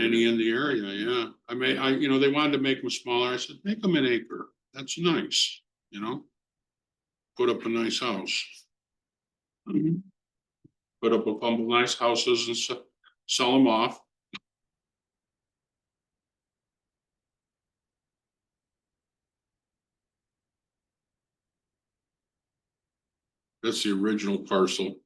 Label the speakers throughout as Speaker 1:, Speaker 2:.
Speaker 1: Any in the area, yeah. I mean, I, you know, they wanted to make them smaller. I said, make them an acre. That's nice, you know? Put up a nice house. Mm-hmm. Put up a couple of nice houses and se- sell them off. That's the original parcel.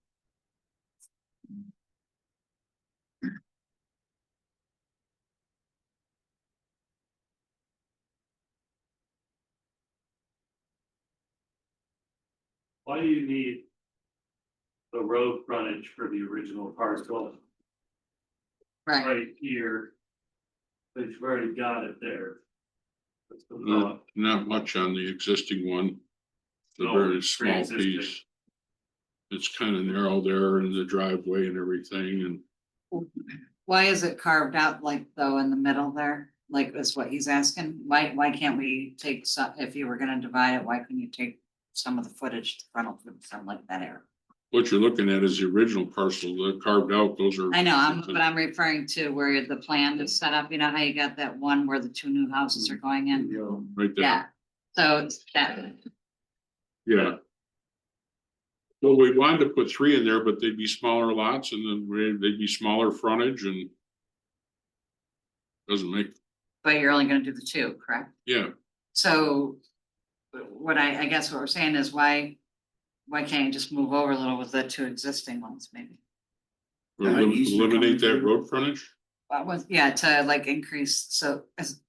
Speaker 2: Why do you need the road frontage for the original parcel
Speaker 3: Right,
Speaker 2: right here? But you've already got it there. That's the
Speaker 1: Not,
Speaker 2: thought.
Speaker 1: not much on the existing one. The
Speaker 2: No,
Speaker 1: very
Speaker 2: it's
Speaker 1: small
Speaker 2: pre-existing.
Speaker 1: piece. It's kind of narrow there in the driveway and everything and
Speaker 3: why is it carved out like though in the middle there, like is what he's asking, why, why can't we take some, if you were gonna divide it, why couldn't you take? Some of the footage, the frontal, something like that area,
Speaker 1: what you're looking at is the original parcel that carved out, those are.
Speaker 3: I know, I'm, but I'm referring to where the plan is set up, you know how you got that one where the two new houses are going in?
Speaker 1: Right
Speaker 3: Yeah,
Speaker 1: there,
Speaker 3: so it's that,
Speaker 1: yeah. Well, we wanted to put three in there, but they'd be smaller lots and then we- they'd be smaller frontage and. Doesn't make,
Speaker 3: but you're only gonna do the two, correct?
Speaker 1: yeah,
Speaker 3: So what I, I guess what we're saying is why, why can't you just move over a little with the two existing ones maybe?
Speaker 1: we'll
Speaker 2: Yeah, it
Speaker 1: elim-
Speaker 2: used to come
Speaker 1: eliminate that
Speaker 2: through.
Speaker 1: road frontage.
Speaker 3: What was, yeah, to like increase, so is,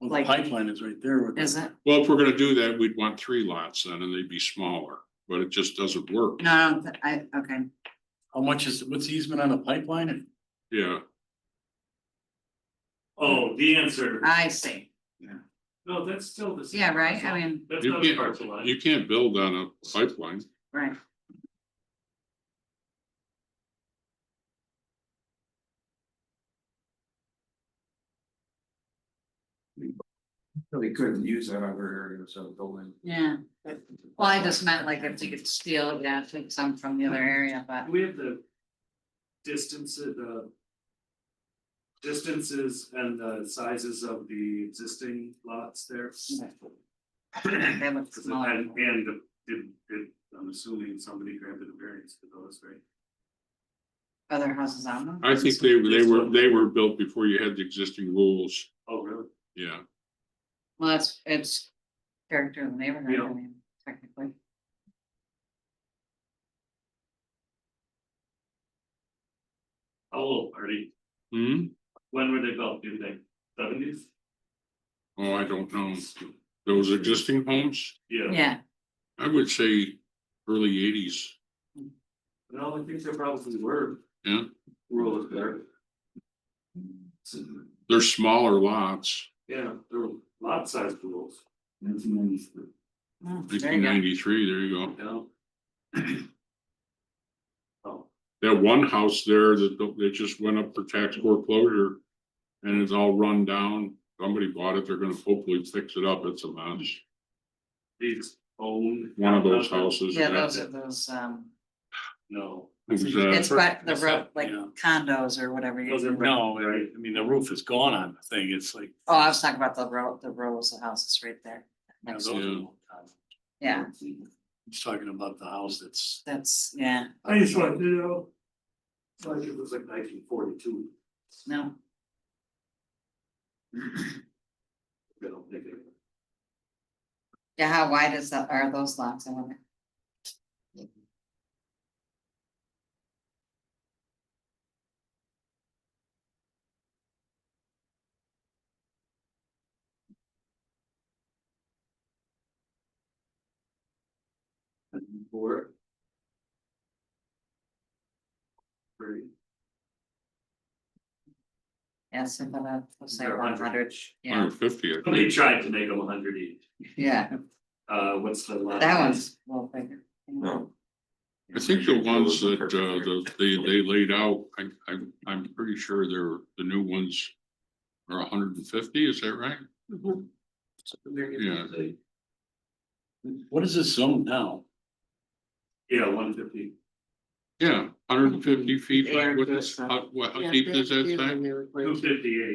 Speaker 4: Well,
Speaker 3: Like-
Speaker 4: the pipeline is right there. with the-
Speaker 3: is it,
Speaker 1: Well, if we're gonna do that, we'd want three lots then, and they'd be smaller, but it just doesn't work.
Speaker 3: no, I don't thi- I, okay,
Speaker 4: How much is, what's the easement on the pipeline?
Speaker 1: Yeah,
Speaker 2: Oh, the answer.
Speaker 3: I see,
Speaker 2: No, that's still the. same
Speaker 3: yeah, right,
Speaker 2: parcel.
Speaker 3: I mean,
Speaker 2: That's
Speaker 1: You
Speaker 2: not a
Speaker 1: can't-
Speaker 2: parcel line.
Speaker 1: you can't build on a pipeline.
Speaker 3: right,
Speaker 5: They couldn't use that other area, so building.
Speaker 3: yeah. Well, I just meant like if you could steal, yeah, take some from the other area, but
Speaker 2: Do we have the distance of the distances and the sizes of the existing lots there?
Speaker 3: they look smaller.
Speaker 2: And, and the- did, did, I'm assuming somebody granted a variance for those, right?
Speaker 3: Other houses on them?
Speaker 1: I think they, they were, they were built before you had the existing rules,
Speaker 2: Oh, really?
Speaker 1: yeah.
Speaker 3: Well, that's, it's character of the neighborhood,
Speaker 2: Yeah.
Speaker 3: I mean, technically.
Speaker 2: How old are they?
Speaker 1: Hmm,
Speaker 2: Oh, When were they built, do you think? Seventies?
Speaker 1: oh, I don't know, those existing homes,
Speaker 2: Yeah.
Speaker 3: Yeah,
Speaker 1: I would say early eighties,
Speaker 2: No, I think they probably were.
Speaker 1: Yeah.
Speaker 2: Rural there.
Speaker 1: they're smaller lots,
Speaker 2: Yeah, there were lot size rules.
Speaker 3: Mm, there
Speaker 1: nineteen
Speaker 3: you go,
Speaker 1: ninety-three, there you go.
Speaker 2: Yeah. Oh,
Speaker 1: That one house there that, the- that just went up for tax foreclosure, and it's all run down, somebody bought it, they're gonna hopefully fix it up, it's a mess.
Speaker 2: these own.
Speaker 1: One of those houses.
Speaker 3: yeah, those are those, um,
Speaker 2: No.
Speaker 1: Who's that?
Speaker 3: it's but the
Speaker 4: That's
Speaker 3: road,
Speaker 4: that,
Speaker 3: like
Speaker 4: yeah.
Speaker 3: condos or whatever. you-
Speaker 2: Those are-
Speaker 4: No, I I mean, the roof is gone on the thing. It's like.
Speaker 3: Oh, I was talking about the row, the rows of houses right there,
Speaker 4: you know, those
Speaker 1: Yeah.
Speaker 4: are-
Speaker 3: yeah,
Speaker 4: He's talking about the house that's,
Speaker 3: that's, yeah,
Speaker 2: I just want to know. It's like it was like nineteen forty-two.
Speaker 3: no,
Speaker 2: I don't think it.
Speaker 3: yeah, how wide is that, are those lots, I wonder?
Speaker 2: Four. Three.
Speaker 3: Yes, about a, let's say
Speaker 2: They're
Speaker 3: one
Speaker 2: 100.
Speaker 3: hundred, yeah,
Speaker 1: Hundred fifty, I
Speaker 2: Somebody
Speaker 1: think.
Speaker 2: tried to make them a hundred each.
Speaker 3: yeah,
Speaker 2: Uh, what's the last?
Speaker 3: that one's a little bigger.
Speaker 1: I think the ones that, uh, the, they, they laid out, I, I, I'm pretty sure they're, the new ones are hundred and fifty, is that right? Yeah.
Speaker 4: what is this zone now?
Speaker 2: Yeah, one fifty.
Speaker 3: yeah, hundred and fifty feet,
Speaker 1: Air
Speaker 3: like what is,
Speaker 1: versa.
Speaker 3: how, what, how
Speaker 1: Yeah,
Speaker 3: deep
Speaker 1: they're
Speaker 3: is that
Speaker 1: really
Speaker 3: thing?
Speaker 1: new, like-
Speaker 2: Two fifty-eight.